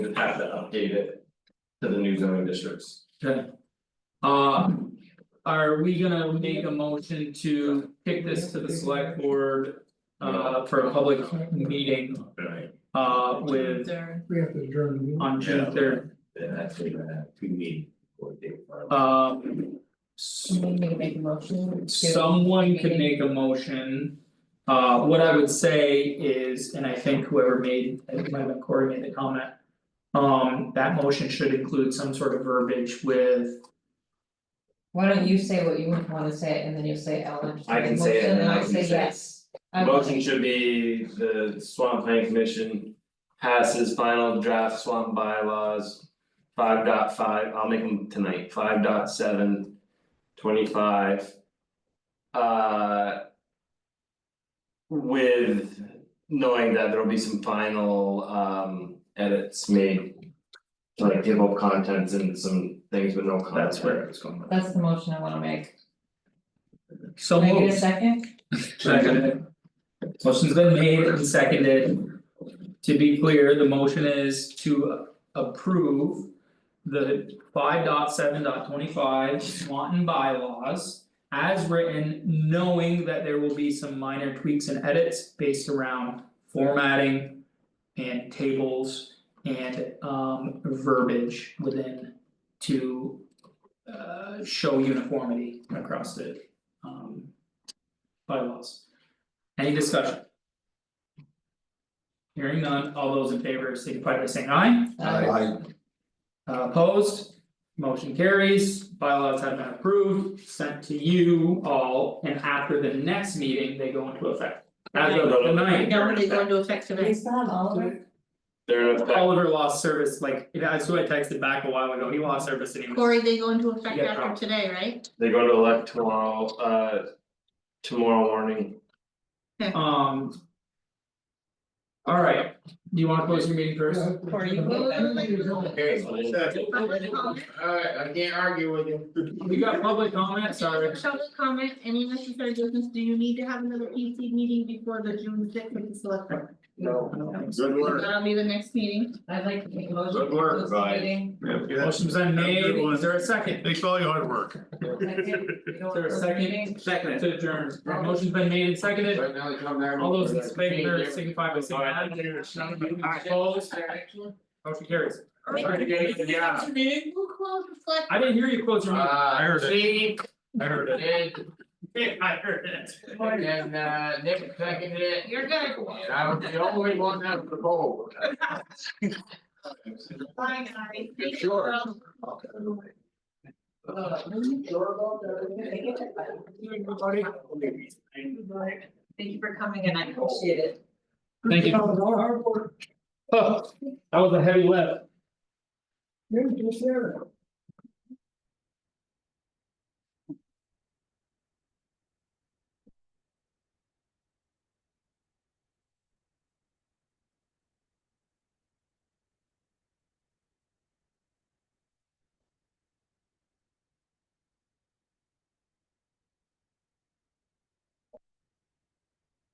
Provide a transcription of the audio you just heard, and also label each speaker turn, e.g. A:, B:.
A: would have to update it to the new zoning districts.
B: Uh, are we gonna make a motion to kick this to the select board? Uh, for a public meeting,
A: Right.
B: uh, with
C: We have to adjourn the meeting.
B: on June third,
A: Then that's what you have to meet or date.
B: um. s-
D: Do we need to make a motion to?
B: Someone could make a motion. Uh, what I would say is, and I think whoever made, I think it might have been Corey made the comment. Um, that motion should include some sort of verbiage with,
D: Why don't you say what you would wanna say and then you'll say Ellen.
A: I can say it, and
D: Motion, and
A: I can
D: I'll say
A: say it.
D: yes.
A: The motion should be the Swamp Plan Commission passes final draft swamp bylaws. Five dot five, I'll make them tonight, five dot seven, twenty five. Uh. With knowing that there'll be some final um edits made. to, Like table of contents and some things with no contents.
B: That's where
A: it's going.
D: That's the motion I wanna make.
B: so
D: Can I
B: moved.
D: get a second?
B: Seconded. Motion's been made and seconded. To be clear, the motion is to approve. The five dot seven dot twenty five Swanton bylaws. As written, knowing that there will be some minor tweaks and edits based around formatting. And tables and um verbiage within to. Uh show uniformity across the um bylaws. Any discussion? Hearing none, all those in favor signify by saying aye, Uh, opposed, motion carries, bylaws have been approved, sent to you all, and after the next meeting, they go into effect. As of the ninth,
E: Nobody's going to affect
D: Do we
E: tonight.
D: still have Oliver?
A: They're in effect,
B: Oliver lost service, like, that's who I texted back a while ago, he lost service and he was.
E: Corey, they go into effect
B: Yeah, no.
E: after today, right?
A: they go to elect tomorrow, uh. Tomorrow morning,
B: Um. Alright, do you wanna close your meeting first?
D: Or you will, then
F: Alright, I can't argue with you.
B: We got public comment, sorry.
E: Public comment, any necessary business, do you need to have another PC meeting before the June sixth with the select board?
F: No. Good
E: That'll be the next meeting.
D: I'd like to make a motion.
F: Good
D: to
F: work,
D: close the
F: bye.
D: meeting.
B: Motion's been made,
F: Good one.
B: is there a second?
F: Thanks for all your hard work.
D: Second, we
B: Is
D: don't
B: there a
D: close the meeting.
B: second? Second. To adjourn, motion's been made and seconded,
F: Right now, you come back.
B: all those in favor signify by saying aye.
F: Alright.
B: Opposed, motion carries.
F: Alright, yeah, yeah.
E: Meeting will close the select.
B: I didn't hear you close your
F: Uh,
B: meeting.
F: I heard it.
B: Uh, I heard
F: And,
B: I heard it.
F: and, uh, Nick seconded it.
E: You're good.
F: And I was the only one that was bold.
E: Bye, guys.
F: You're sure?
D: Thank you for coming and I appreciate it.
B: Thank you. Oh, that was a heavy lift.
C: Yeah, just there.